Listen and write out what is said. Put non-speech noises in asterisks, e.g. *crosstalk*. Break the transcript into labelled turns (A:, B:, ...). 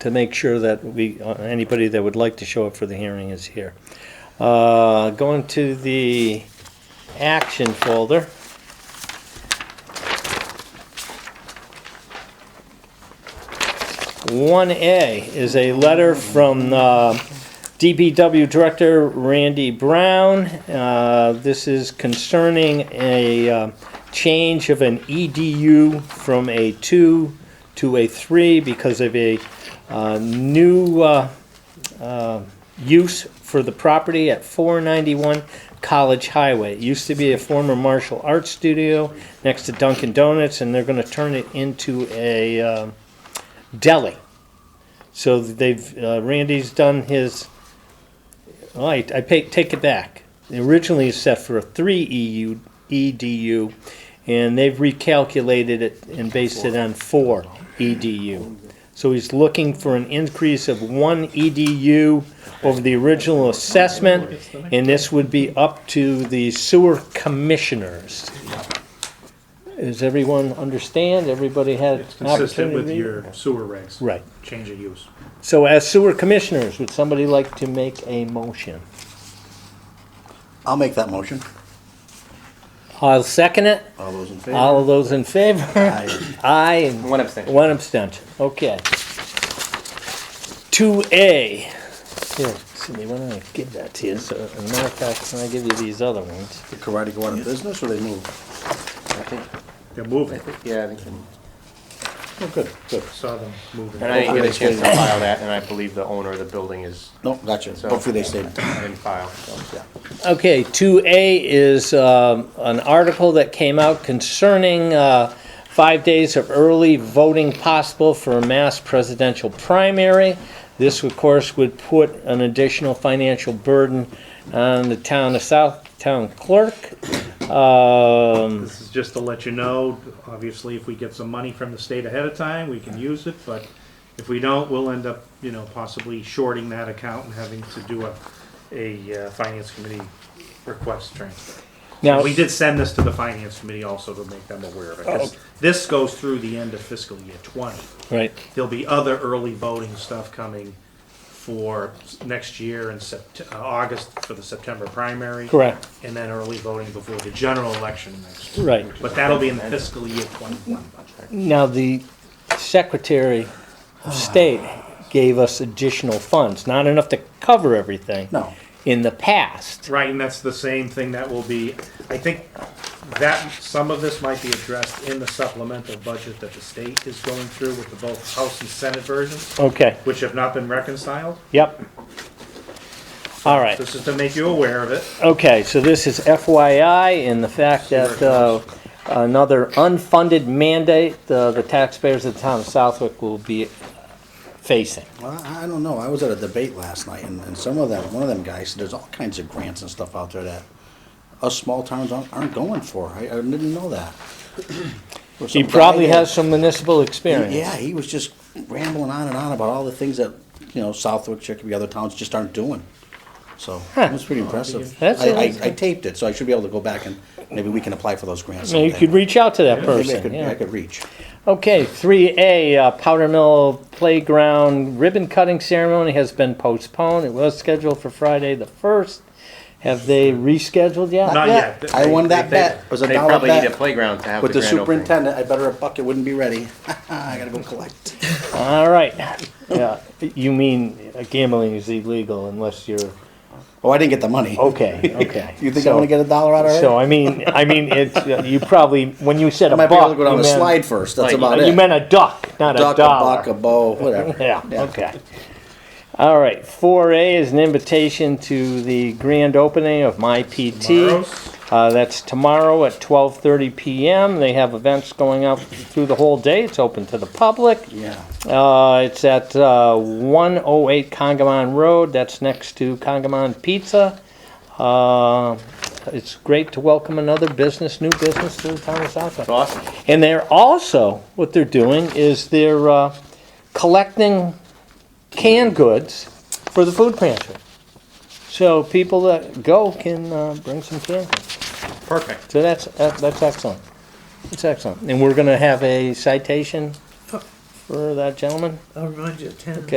A: to make sure that we, uh, anybody that would like to show up for the hearing is here. Uh, Going to the action folder. One A is a letter from uh, DPW Director Randy Brown. Uh, This is concerning a uh, change of an EDU from a two to a three because of a uh, new uh, uh, use for the property at 491 College Highway. It used to be a former martial arts studio next to Dunkin' Donuts, and they're going to turn it into a um, deli. So they've, uh, Randy's done his, well, I, I pay, take it back. Originally it's set for a three E EU, EDU, and they've recalculated it and based it on four EDU. So he's looking for an increase of one EDU over the original assessment, and this would be up to the sewer commissioners. Does everyone understand? Everybody had
B: It's
A: an
B: consistent
A: opportunity?
B: with your sewer regs.
A: Right.
B: Change of use.
A: So as sewer commissioners, would somebody like to make a motion?
C: I'll make that motion.
A: I'll second it.
C: All those in favor?
A: All of those in favor?
C: Aye.
A: Aye. and
D: One abstention.
A: One abstention, okay. Two A. Here, Cindy, why don't I give that to you? So, as a matter of fact, can I give you these other ones?
C: The karate go out of business or they move?
D: I think-
B: They're moving.
D: Yeah, I think. so.
C: Oh, good, good.
B: Saw them moving.
D: And I didn't get a
C: Hopefully they
D: chance to file that, and I believe the owner of the building is,
C: No, gotcha.
D: So-
C: Hopefully they stayed.
D: I didn't file, so, yeah.
A: Okay, two A is um, an article that came out concerning uh, five days of early voting possible for a mass presidential primary. This, of course, would put an additional financial burden on the town of South, town clerk. Um,
B: This is just to let you know, obviously, if we get some money from the state ahead of time, we can use it, but if we don't, we'll end up, you know, possibly shorting that account and having to do a, a uh, finance committee request transfer.
A: Now, Oh,
B: We did send this to the finance committee also to make them aware of it. 'cause This goes through the end of fiscal year twenty.
A: right,
B: There'll be other early voting stuff coming for s- next year in Sept- uh, August for the September primary.
A: Correct.
B: And then early voting before the general election next year.
A: right.
B: But that'll be in the fiscal year twenty-one budget.
A: Now, the Secretary
B: *sighs*
A: of State gave us additional funds, not enough to cover everything.
C: No.
A: In the past.
B: Right, and that's the same thing that will be, I think that, some of this might be addressed in the supplemental budget that the state is going through with the both House and Senate versions,
A: Okay,
B: which have not been reconciled.
A: yep. All right.
B: This is to make you aware of it.
A: Okay, so this is FYI and the fact that uh, another unfunded mandate uh, the taxpayers of the town of Southwick will be facing.
C: Well, I I don't know. I was at a debate last night and, and some of them, one of them guys, said there's all kinds of grants and stuff out there that us small towns aren't, aren't going for. I, I didn't know *clears throat* that. Or
A: He
C: some
A: probably
C: guy-
A: has some municipal experience.
C: Yeah, he was just rambling on and on about all the things that, you know, Southwick, Chicopee, other towns just aren't doing. So, it was pretty impressive.
A: That's
C: I, I, I
A: amazing.
C: taped it, so I should be able to go back and maybe we can apply for those grants.
A: Now, You
C: someday.
A: could reach out to that
C: Maybe I
A: person,
C: could,
A: yeah.
C: I could reach.
A: Okay, three A, uh, Powder Mill Playground ribbon cutting ceremony has been postponed. It was scheduled for Friday the first. Have they rescheduled yet?
B: Not yet. They-
C: I won that
B: they-
C: bet. It was a
D: They
C: dollar
D: probably need a
C: bet.
D: playground to have the
C: With the
D: grand opening.
C: superintendent, I bet her a bucket wouldn't be ready. *laughs* I gotta go collect.
A: All right, yeah, you mean uh, gambling is illegal unless you're,
C: Oh, I didn't get the money.
A: okay, okay.
C: *laughs* You think I wanna get a dollar out of her?
A: So I mean, I mean, it's uh, you probably when you said
C: I
A: a
C: might be able
A: buck,
C: to go down
A: you,
C: a
A: meant,
C: slide first, that's
D: Like,
C: about
A: you
C: it.
A: meant a duck, not
C: Duck,
A: a
C: a
A: dollar.
C: buck, a bow, whatever.
A: yeah, Okay. All right. Four A is an invitation to the grand opening of my PT.
B: Tomorrow's.
A: Uh, that's tomorrow at twelve thirty p.m. They have events going up through the whole day. It's open to the public.
C: Yeah.
A: Uh, it's at uh, 108 Congamon Road. That's next to Congamon Pizza. Uh, it's great to welcome another business, new business to the town of Southwick.
D: It's awesome.
A: And they're also, what they're doing is they're uh, collecting canned goods for the food pantry. So people that go can uh, bring some canned goods.
D: Perfect.
A: So that's, that- that's excellent. That's excellent. And we're going to have a citation for that gentleman.
E: I'll remind you, ten.